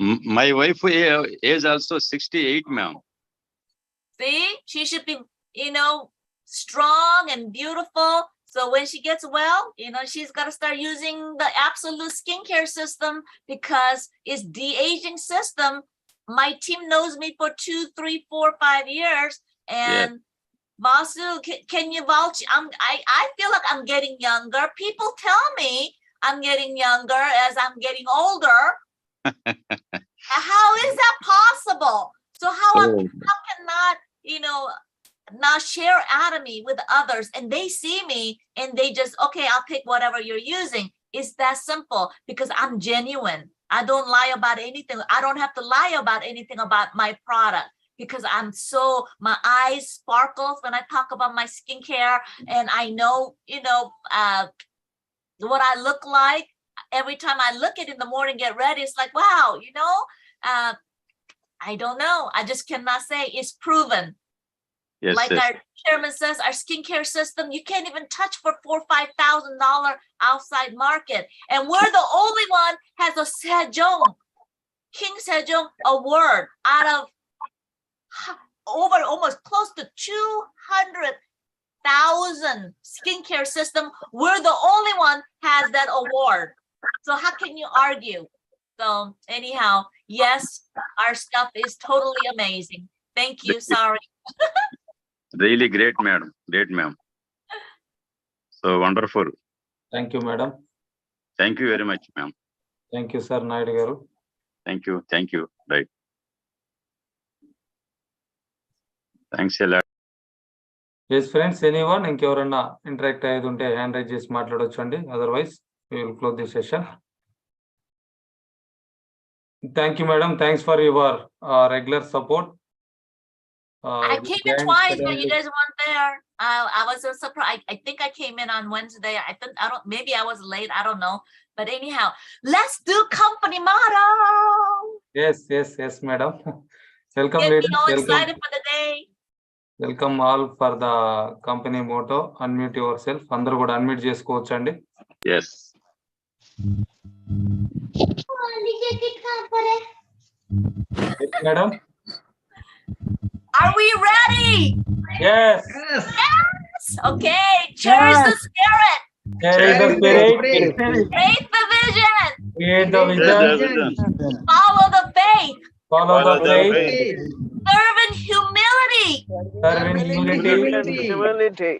M- My wife a- age also sixty-eight, ma'am. See, she should be, you know, strong and beautiful. So when she gets well, you know, she's got to start using the absolute skincare system because it's de aging system. My team knows me for two, three, four, five years, and Vasu, can, can you vouch? I'm, I, I feel like I'm getting younger. People tell me I'm getting younger as I'm getting older. How is that possible? So Oh, how am cannot, you know, not share anatomy with others and they see me and they just, okay, I'll pick whatever you're using. It's that simple because I'm genuine. I don't lie about anything. I don't have to lie about anything about my product because I'm so, my eyes sparkles when I talk about my skincare and I know, you know, uh, what I look like. Every time I look at it in the morning, get ready, it's like, wow, you know, uh, I don't know. I just cannot say it's proven. Yes, like yes, our chairman says, our skincare system, you can't even touch for four, five thousand dollar outside market. And we're the only one has a Sejong, King Sejong award out of h- over almost close to two hundred thousand skincare system. We're the only one has that award. So how can you argue? So anyhow, yes, our stuff is totally amazing. Thank you. Sorry. really great, madam, great, ma'am. So wonderful. Thank you madam Thank you very much, ma'am. Thank you sir Naidu garu Thank you, thank you, right. Thanks a lot. Yes friends anyone ఇంకెవరన్నా interact అయ్యేది ఉంటే hand raise చేసి మాట్లాడొచ్చు అండి otherwise will close the session thank you madam thanks for your regular support Um, I came in twice, but you guys weren't there. Uh, I was so surprised. I, I think I came in on Wednesday. I think, I don't, maybe I was late. I don't know. But anyhow, let's do company motto. Yes yes yes madam welcome Get me ladies all welcome excited for the day. Welcome all for the company motto unmute yourself అందరూ కూడా unmute చేసుకోవచ్చు అండి Yes, madam Are we ready? Yes Yes. Okay, cherish the spirit, raise the vision, Create the vision, follow the faith, follow the way, serve in humility. serve in unity. Humility.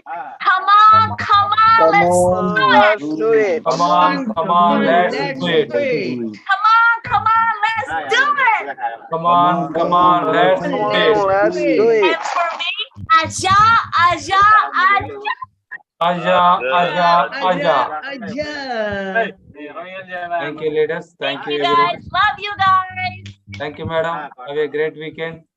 Come on, come on, let's do it. Let's do it. Come on, come on, let's do it. Come on, come on, let's do it. Come on, come on, let's Come do on, it. let's do it. And for me, Aja, Aja, Aja. Aja, aja, aja. Thank you, ladies. Thank Thank you, you everyone. guys. Love you guys. Thank you, madam. Have a great weekend.